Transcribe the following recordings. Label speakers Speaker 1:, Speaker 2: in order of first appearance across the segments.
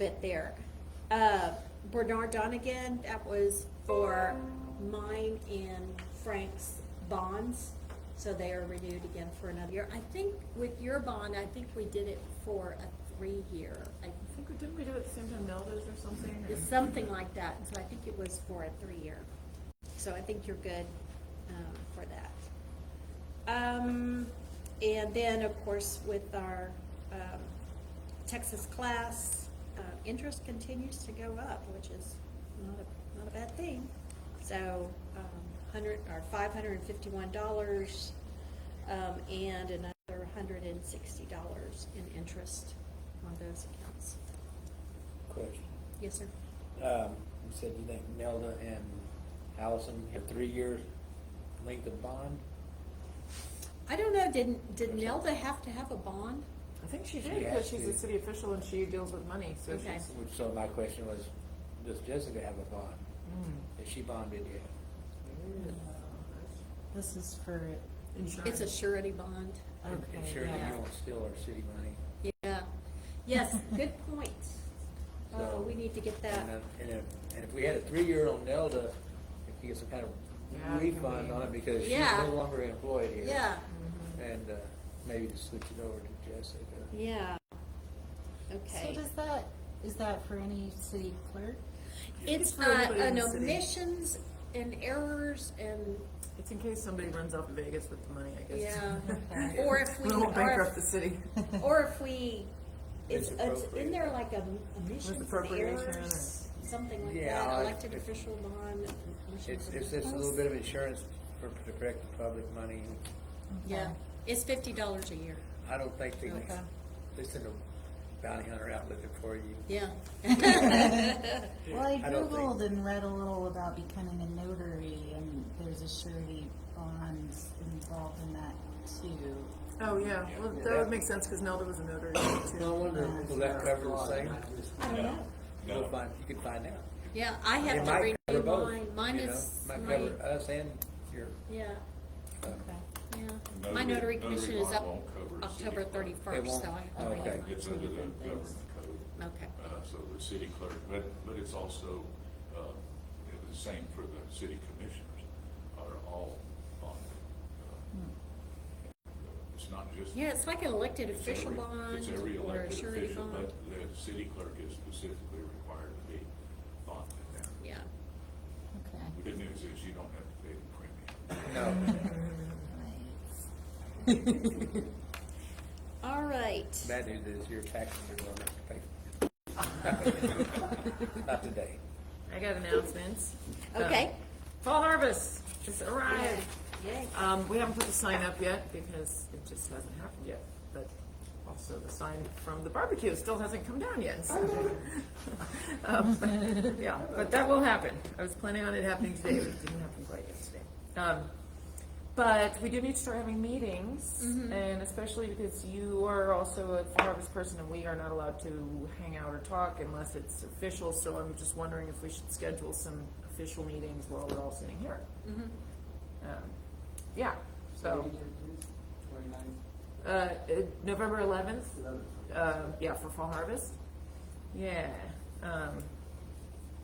Speaker 1: bit there. Uh, Bernard Donigan, that was for mine and Frank's bonds, so they are renewed again for another year. I think with your bond, I think we did it for a three-year, I
Speaker 2: I think, we- didn't we do it at the same time Nelda's or something?
Speaker 1: it's something like that, and so I think it was for a three-year. So I think you're good um, for that. Um, And then, of course, with our um, Texas class, uh, interest continues to go up, which is not a, not a bad thing. So um, hundred, or five hundred and fifty-one dollars um, and another hundred and sixty dollars in interest on those accounts.
Speaker 3: Question.
Speaker 1: Yes, sir?
Speaker 3: Um, you said you think Nelda and Allison have three years length of bond?
Speaker 1: I don't know, didn't, did Nelda have to have a bond?
Speaker 2: I think she
Speaker 3: She
Speaker 2: did, because
Speaker 3: has
Speaker 2: she's
Speaker 3: to.
Speaker 2: a city official and she deals with money, so
Speaker 1: Okay.
Speaker 2: she's.
Speaker 3: Which, so my question was, does Jessica have a bond?
Speaker 2: Mm.
Speaker 3: Has she bonded yet?
Speaker 4: This is for,
Speaker 1: It's a surety bond.
Speaker 3: And- and
Speaker 4: Okay,
Speaker 3: Sure, that
Speaker 4: yeah.
Speaker 3: you won't steal our city money.
Speaker 1: Yeah, yes, good point. Oh, we need to get
Speaker 3: And
Speaker 1: that,
Speaker 3: then- And if, and if we had a three-year on Nelda, if you get some kind
Speaker 2: Yeah,
Speaker 3: of
Speaker 2: it can
Speaker 3: refund
Speaker 2: be-
Speaker 3: on it because she's
Speaker 1: Yeah.
Speaker 3: no longer employed here.
Speaker 1: yeah,
Speaker 3: And, uh, maybe to switch it over to Jessica.
Speaker 1: yeah.
Speaker 4: so
Speaker 1: Okay.
Speaker 4: does that, is that for any city clerk?
Speaker 1: It's
Speaker 2: for
Speaker 1: uh,
Speaker 2: everybody in
Speaker 1: an
Speaker 2: the city.
Speaker 1: omissions and errors and,
Speaker 2: It's in case somebody runs off to Vegas with the money, I guess.
Speaker 1: yeah,
Speaker 4: Okay.
Speaker 1: or if we,
Speaker 2: We won't
Speaker 1: or
Speaker 2: bankrupt the
Speaker 1: if,
Speaker 2: city.
Speaker 1: or if we, it's, it's,
Speaker 3: Misappropriate.
Speaker 1: isn't there like a omissions and
Speaker 2: appropriation or-
Speaker 1: errors? Something like
Speaker 3: Yeah,
Speaker 1: that,
Speaker 3: it-
Speaker 1: elected
Speaker 3: it-
Speaker 1: official bond. omissions
Speaker 3: It's,
Speaker 1: and
Speaker 3: it's just a little bit of insurance for, to protect the public money.
Speaker 1: Yeah, it's fifty dollars a year,
Speaker 3: I don't think they,
Speaker 4: Okay.
Speaker 3: they send a bounty hunter out looking for you.
Speaker 1: yeah.
Speaker 4: Well, I
Speaker 3: I don't think-
Speaker 4: Googled and read a little about becoming a notary and there's a surety bond involved in that too.
Speaker 2: Oh, yeah, well, that would make sense, because Nelda was a notary too.
Speaker 3: No wonder, will that cover the same?
Speaker 1: I don't know.
Speaker 3: You'll find, you can find out.
Speaker 1: Yeah, I
Speaker 3: It
Speaker 1: have to
Speaker 3: might cover
Speaker 1: renew
Speaker 3: both,
Speaker 1: mine, mine
Speaker 3: you know?
Speaker 1: is,
Speaker 3: Might
Speaker 1: my,
Speaker 3: cover uh, us and your,
Speaker 1: yeah,
Speaker 3: uh,
Speaker 1: yeah. My notary
Speaker 5: Notary-
Speaker 1: commission
Speaker 5: notary
Speaker 1: is
Speaker 5: law
Speaker 1: up
Speaker 5: won't cover city
Speaker 1: October
Speaker 5: clerk.
Speaker 3: It
Speaker 1: thirty-first,
Speaker 3: won't?
Speaker 1: so I have to
Speaker 3: Okay.
Speaker 1: renew mine.
Speaker 5: It's under the government code,
Speaker 1: Okay,
Speaker 5: uh, so the city clerk, but, but it's also, uh, the same for the city commissioners are all on it. Uh, It's not just.
Speaker 1: yeah, it's like an elected
Speaker 5: it's
Speaker 1: official
Speaker 5: every-
Speaker 1: bond
Speaker 5: It's every
Speaker 1: or a
Speaker 5: elected
Speaker 1: surety
Speaker 5: official,
Speaker 1: bond,
Speaker 5: but the city clerk is specifically required to be bonded now.
Speaker 1: yeah,
Speaker 4: Okay.
Speaker 5: The good news is you don't have to pay the premium.
Speaker 3: no,
Speaker 4: Right.
Speaker 1: all right.
Speaker 3: bad news is your taxes are going up. Thank- Not today.
Speaker 2: I got announcements.
Speaker 1: Okay.
Speaker 2: Uh, Fall harvest has arrived.
Speaker 1: Yay.
Speaker 2: Um, we haven't put the sign up yet because it just hasn't happened yet, but also the sign from the barbecue still hasn't come down yet, so. Um, but- Yeah, but that will happen. I was planning on it happening today, but it didn't happen quite yesterday. Um, but we do need to start having meetings, and especially because you are also a Fall Harvest person, and we are not allowed to hang out or talk unless it's official, so I'm just wondering if we should schedule some official meetings while we're all sitting here.
Speaker 1: Mm-hmm.
Speaker 2: Um, Yeah, so, uh, uh, November eleventh, um, yeah, for Fall Harvest. Yeah, um,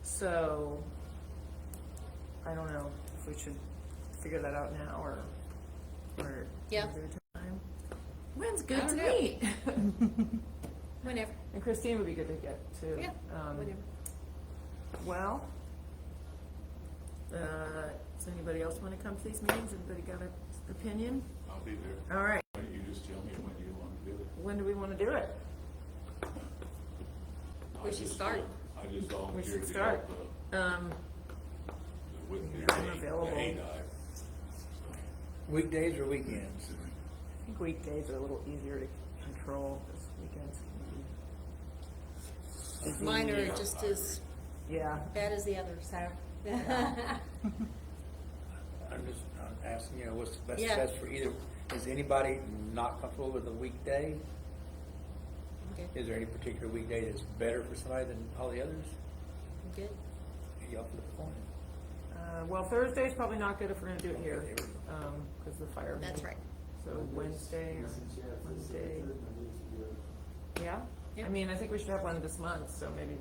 Speaker 2: so, I don't know if we should figure that out now or, or.
Speaker 1: Yeah.
Speaker 2: another time. When's good to
Speaker 1: I don't
Speaker 2: meet?
Speaker 1: Whenever,
Speaker 2: And Christine would be good to get too.
Speaker 1: yeah,
Speaker 2: Um,
Speaker 1: whenever.
Speaker 2: Well, uh, does anybody else wanna come to these meetings? Anybody got an opinion?
Speaker 5: I'll be
Speaker 1: Oh.
Speaker 5: there.
Speaker 2: All right,
Speaker 5: You just tell me when you want to do it.
Speaker 2: when do we wanna do it?
Speaker 1: We
Speaker 5: I
Speaker 1: should
Speaker 5: just
Speaker 1: start.
Speaker 5: vol- I just volunteered.
Speaker 2: should
Speaker 5: to
Speaker 2: start.
Speaker 5: help, uh,
Speaker 2: Um,
Speaker 5: With the
Speaker 2: I'm available.
Speaker 5: A dive.
Speaker 3: Weekdays or weekends?
Speaker 2: I think weekdays are a little easier to control this weekend.
Speaker 1: Mine are just as
Speaker 2: Yeah,
Speaker 1: bad as the others, so.
Speaker 3: I'm just, I'm asking, you know, what's the best
Speaker 1: Yeah.
Speaker 3: test for either, is anybody not comfortable with a weekday?
Speaker 1: Okay,
Speaker 3: Is there any particular weekday that's better for somebody than all the others?
Speaker 1: good.
Speaker 3: Y'all flip a coin.
Speaker 2: uh, well, Thursday's probably not good if we're gonna do it here, um, cause the fire.
Speaker 1: That's right.
Speaker 2: So Wednesday or Wednesday, yeah? I mean, I think we should have one this month, so maybe